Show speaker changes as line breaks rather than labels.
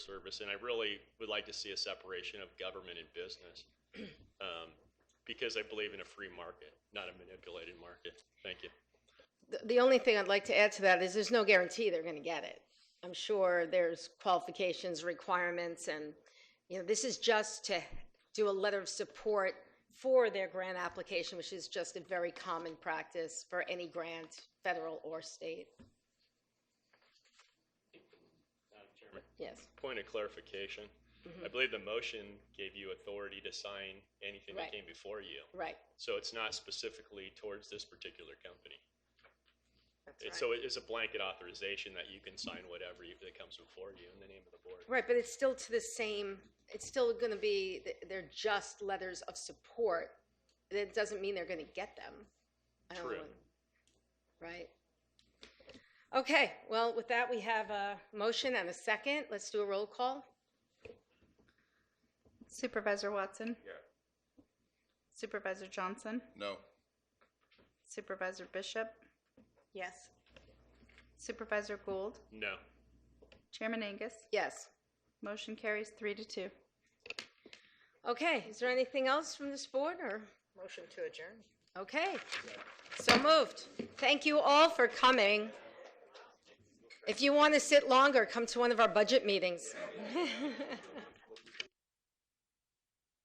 service, and I really would like to see a separation of government and business. um, Because I believe in a free market, not a manipulated market. Thank you.
The- The only thing I'd like to add to that is there's no guarantee they're going to get it. I'm sure there's qualifications, requirements, and, you know, this is just to do a letter of support for their grant application, which is just a very common practice for any grant, federal or state. Yes,
Point of clarification.
Mm-hmm.
I believe the motion gave you authority to sign anything that
Right.
came before you.
right.
So it's not specifically towards this particular company.
That's
It's-
right.
So it is a blanket authorization that you can sign whatever you- that comes before you in the name of the board.
Right, but it's still to the same, it's still going to be, they're just letters of support. That doesn't mean they're going to get them. I don't
True.
want- Right. Okay, well, with that, we have a motion and a second. Let's do a roll call.
Supervisor Watson?
Yeah.
Supervisor Johnson?
No.
Supervisor Bishop?
Yes.
Supervisor Gould?
No.
Chairman Angus?
Yes.
Motion carries three to two.
Okay, is there anything else from this board or?
Motion to adjourn.
Okay, so moved. Thank you all for coming. If you want to sit longer, come to one of our budget meetings.